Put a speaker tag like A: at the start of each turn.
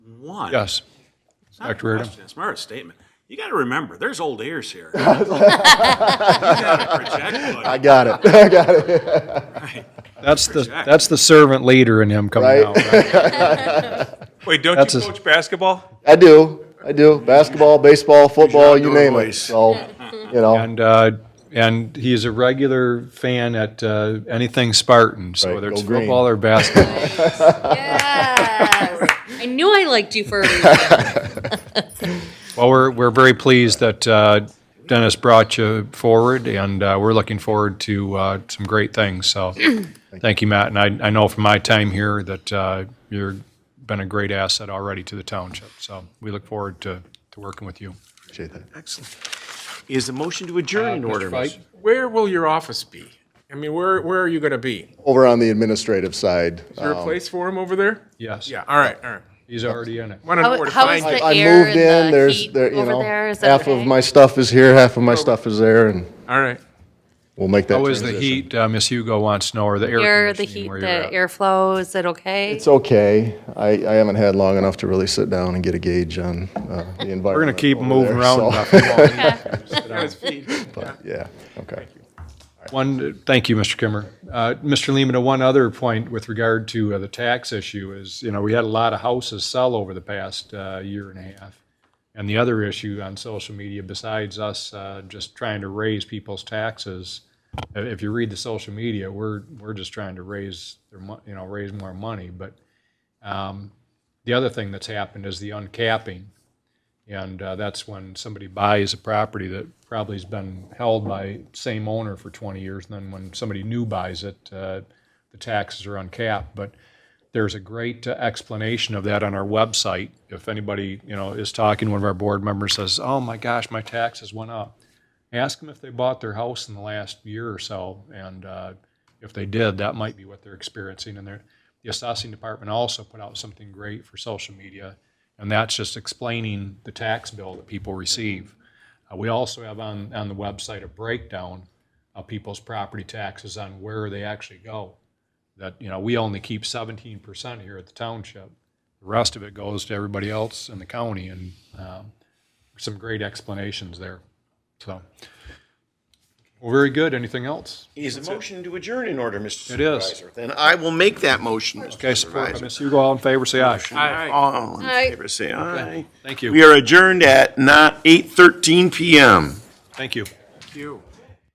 A: one.
B: Yes.
A: It's not a
B: Dr. Reardon.
A: question, It's more a statement. You got to remember, there's old ears here. You gotta project what-
C: I got it. I got it.
A: right.
B: That's the,
A: Jack.
B: that's the servant leader in him coming
C: Right.
B: out. right?
D: Wait, don't
B: That's
D: you
B: a-
D: coach basketball?
C: I do. I do. Basketball, baseball, football,
E: Jean
C: you name it.
E: Dorois.
C: So, you know,
B: And, uh, and he's a regular fan at uh, anything Spartan, so
C: Right,
B: whether
C: go
B: it's
C: green.
B: football or basketball.
F: Yes. I knew I liked you for a reason.
B: Well, we're, we're very pleased that uh, Dennis brought you forward, and uh, we're looking forward to uh, some great things. So, thank you, Matt. And I, I know from my time here that uh, you've been a great asset already to the township. So, we look forward to, to working with you.
C: appreciate that.
E: Excellent. Is the motion to adjourn
B: Uh,
E: in order? Mr.
D: Where will your office be? I mean, where where are you going to be?
C: Over on the administrative side, uh,
D: Is there a place for him over there?
B: Yes.
D: Yeah. All right. All right.
B: He's already in it.
D: Want to know where to
F: how is
D: find you?
F: the
C: I
F: air
C: moved
F: and
C: in.
F: the
C: There's,
F: heat
C: there, you
F: over
C: know,
F: there, is that
C: half of
F: okay?
C: my stuff is here, half of my stuff is there, and
D: All right.
C: we'll make that
B: How is the
C: transition.
B: heat, uh, Miss Hugo wants to know, or the air
F: Air, the
B: conditioning
F: heat,
B: where you're
F: the
B: at?
F: airflow, is it okay?
C: It's okay. I, I haven't had long enough to really sit down and get a gauge on uh, the environment.
B: We're going to keep
C: over
B: moving
C: there,
B: around.
C: so-
B: enough. You won't need to sit down.
D: On his feet.
C: Yeah, okay.
B: One, thank you, Mr. Kimmer. Uh, Mr. Lehman, uh, one other point with regard to uh, the tax issue is, you know, we had a lot of houses sell over the past uh, year and a half. And the other issue on social media, besides us uh, just trying to raise people's taxes, uh, if you read the social media, we're, we're just trying to raise, their mon- you know, raise more money. But um, the other thing that's happened is the uncapping. And uh, that's when somebody buys a property that probably has been held by same owner for 20 years. And then when somebody new buys it, uh, the taxes are uncapped. But there's a great uh, explanation of that on our website. If anybody, you know, is talking, one of our board members says, oh my gosh, my taxes went up. Ask them if they bought their house in the last year or so. And uh, if they did, that might be what they're experiencing. And they're, the assessing department also put out something great for social media. And that's just explaining the tax bill that people receive. Uh, We also have on, on the website a breakdown of people's property taxes on where they actually go. That, you know, we only keep seventeen percent here at the township. The rest of it goes to everybody else in the county and um, some great explanations there, so. Well, very good. Anything else?
E: Is the motion to adjourn in order, Mr.
B: It is.
E: Supervisor? Then I will make that motion,
B: Okay,
E: Mr.
B: support by
E: Supervisor.
B: Ms. Hugo. All in favor, say aye.
D: All right.
E: All in
F: Aye.
E: favor, say aye.
B: Thank you.
E: We are adjourned at not 8:13 PM.
B: Thank you.
D: Thank you.